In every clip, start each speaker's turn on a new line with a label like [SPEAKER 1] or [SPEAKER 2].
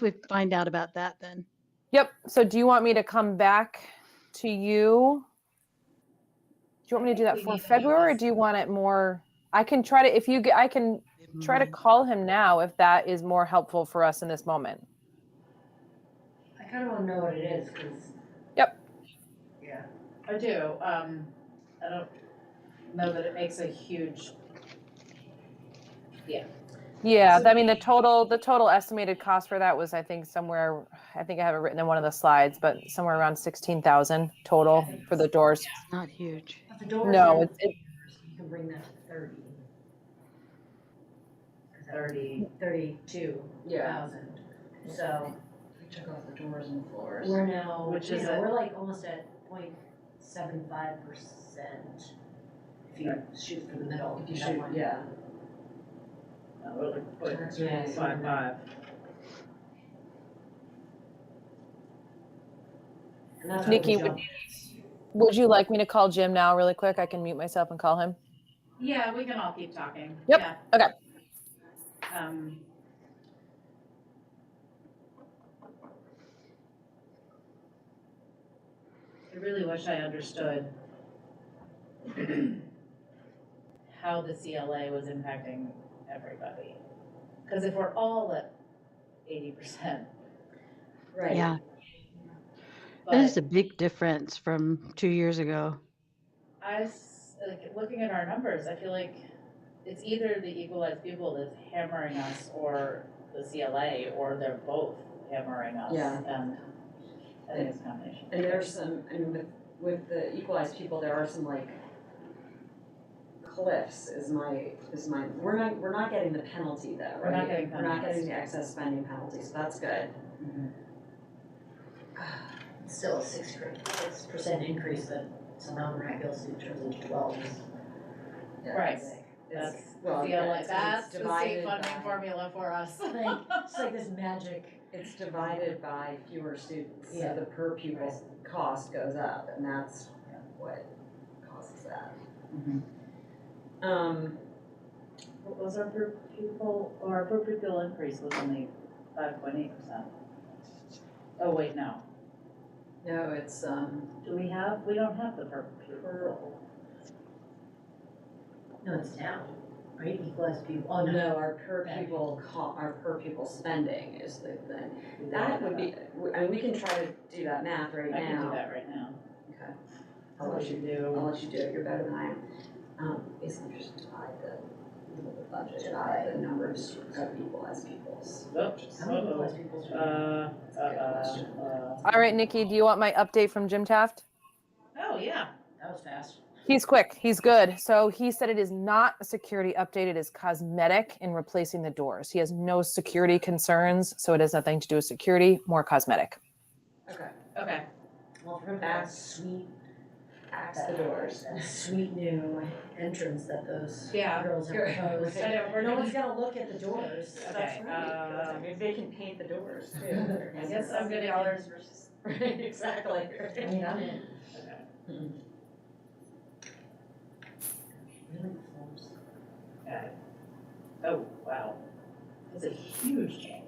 [SPEAKER 1] we find out about that then.
[SPEAKER 2] Yep. So do you want me to come back to you? Do you want me to do that for February or do you want it more? I can try to, if you get, I can try to call him now if that is more helpful for us in this moment.
[SPEAKER 3] I kind of want to know what it is, because.
[SPEAKER 2] Yep.
[SPEAKER 3] Yeah.
[SPEAKER 4] I do, um, I don't know that it makes a huge,
[SPEAKER 2] Yeah, I mean, the total, the total estimated cost for that was, I think, somewhere, I think I have it written in one of the slides, but somewhere around sixteen thousand total for the doors.
[SPEAKER 1] It's not huge.
[SPEAKER 3] But the doors.
[SPEAKER 2] No,
[SPEAKER 3] are-
[SPEAKER 2] it's, it,
[SPEAKER 3] You can bring that to thirty. Is that
[SPEAKER 4] Thirty.
[SPEAKER 3] Thirty-two thousand. So
[SPEAKER 5] Um,
[SPEAKER 4] We took off the doors and floors.
[SPEAKER 3] we're now,
[SPEAKER 4] Which
[SPEAKER 3] you
[SPEAKER 4] is
[SPEAKER 3] know,
[SPEAKER 4] a-
[SPEAKER 3] we're like almost at point seven five percent. If you shoot for the middle.
[SPEAKER 4] If you
[SPEAKER 3] that
[SPEAKER 4] shoot,
[SPEAKER 3] one.
[SPEAKER 4] yeah. Uh, we're like, what,
[SPEAKER 3] That's right.
[SPEAKER 4] five, five.
[SPEAKER 3] And that's what
[SPEAKER 2] Nikki,
[SPEAKER 3] we
[SPEAKER 2] would-
[SPEAKER 3] jump-
[SPEAKER 2] would you like me to call Jim now really quick? I can mute myself and call him.
[SPEAKER 4] Yeah, we can all keep talking.
[SPEAKER 2] Yep,
[SPEAKER 4] Yeah.
[SPEAKER 2] okay.
[SPEAKER 4] Um. I really wish I understood how the CLA was impacting everybody. Because if we're all at eighty percent,
[SPEAKER 3] Right.
[SPEAKER 1] Yeah, that is
[SPEAKER 4] but
[SPEAKER 1] a big difference from two years ago.
[SPEAKER 4] I, s- like, looking at our numbers, I feel like it's either the equalized people that's hammering us or the CLA, or they're both hammering us.
[SPEAKER 5] Yeah.
[SPEAKER 4] And I think it's a combination.
[SPEAKER 5] And there's some, and with, with the equalized people, there are some like cliffs is my, is my, we're not, we're not getting the penalty though, right?
[SPEAKER 4] We're not getting
[SPEAKER 5] We're not
[SPEAKER 4] penalties.
[SPEAKER 5] getting the excess spending penalty, so that's good.
[SPEAKER 4] Mhm.
[SPEAKER 3] Still a six percent increase that somehow miraculously turns into twelve.
[SPEAKER 5] Yeah,
[SPEAKER 4] Right.
[SPEAKER 5] it's- It's,
[SPEAKER 4] That's
[SPEAKER 5] well, yeah,
[SPEAKER 4] CLA,
[SPEAKER 5] it's-
[SPEAKER 4] that's
[SPEAKER 5] it's
[SPEAKER 4] the state
[SPEAKER 5] divided
[SPEAKER 4] funding
[SPEAKER 5] by,
[SPEAKER 4] formula for us.
[SPEAKER 3] Like, it's like this magic.
[SPEAKER 5] it's divided by fewer students,
[SPEAKER 4] Yeah.
[SPEAKER 5] so the per pupil cost goes up, and that's what causes that. Mm-hmm.
[SPEAKER 4] Mhm.
[SPEAKER 5] Um,
[SPEAKER 4] What was our per pupil, or our per pupil increase was only five point eight percent? Oh, wait, no,
[SPEAKER 5] no, it's, um,
[SPEAKER 4] do we have, we don't have the per pupil.
[SPEAKER 3] No, it's down, right? Equalized people, oh no.
[SPEAKER 5] No, our per pupil co- our per pupil spending is the thing. That would be, I mean, we can try to do that math
[SPEAKER 4] I
[SPEAKER 5] right now.
[SPEAKER 4] can do that right now.
[SPEAKER 5] Okay.
[SPEAKER 4] So
[SPEAKER 5] I'll
[SPEAKER 4] we
[SPEAKER 5] let you,
[SPEAKER 4] should do.
[SPEAKER 5] I'll let you do it, you're better than I am. Um, basically just divide the, the budget by the number of stu- of people as pupils.
[SPEAKER 4] Oops,
[SPEAKER 3] How many
[SPEAKER 4] uh-oh.
[SPEAKER 3] equalized peoples
[SPEAKER 4] Uh,
[SPEAKER 3] do we have?
[SPEAKER 4] uh, uh, uh.
[SPEAKER 2] All right, Nikki, do you want my update from Jim Taft?
[SPEAKER 4] Oh, yeah, that was fast.
[SPEAKER 2] He's quick. He's good. So he said it is not a security update. It is cosmetic in replacing the doors. He has no security concerns. So it has nothing to do with security, more cosmetic.
[SPEAKER 5] Okay,
[SPEAKER 4] Okay.
[SPEAKER 3] Well, remember that sweet,
[SPEAKER 5] axe the doors.
[SPEAKER 3] that sweet new entrance that those
[SPEAKER 4] Yeah.
[SPEAKER 3] girls have proposed.
[SPEAKER 4] I know, we're
[SPEAKER 3] No
[SPEAKER 4] not-
[SPEAKER 3] one's gonna look at the doors.
[SPEAKER 4] Okay,
[SPEAKER 5] um,
[SPEAKER 4] uh,
[SPEAKER 5] Maybe they can paint the doors too.
[SPEAKER 4] I guess I'm gonna- Dollars
[SPEAKER 5] versus. Right, exactly.
[SPEAKER 3] I mean, I'm in.
[SPEAKER 4] okay.
[SPEAKER 3] Really close.
[SPEAKER 4] Okay. Oh, wow. That's a huge change.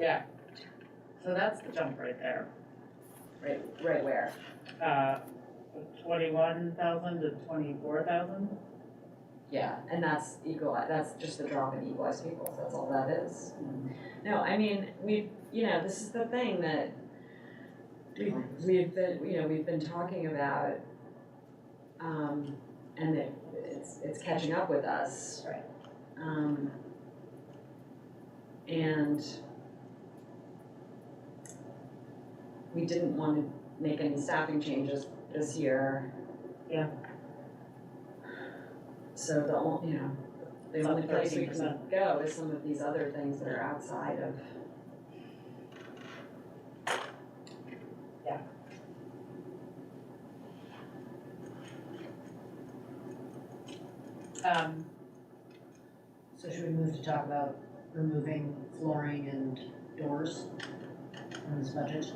[SPEAKER 4] Yeah. So that's the jump right there.
[SPEAKER 5] Right, right where?
[SPEAKER 4] Uh, twenty-one thousand to twenty-four thousand?
[SPEAKER 5] Yeah, and that's equal, that's just the drop in equalized peoples, that's all that is. No, I mean, we, you know, this is the thing that we've, we've been, you know, we've been talking about. Um, and it, it's, it's catching up with us.
[SPEAKER 4] Right.
[SPEAKER 5] Um. And we didn't wanna make any staffing changes this year.
[SPEAKER 4] Yeah.
[SPEAKER 5] So the only, you know, the
[SPEAKER 4] It's up
[SPEAKER 5] only place we can
[SPEAKER 4] 13%.
[SPEAKER 5] go is some of these other things that are outside of.
[SPEAKER 4] Yeah. Um,
[SPEAKER 3] So should we move to talk about removing flooring and doors from this budget?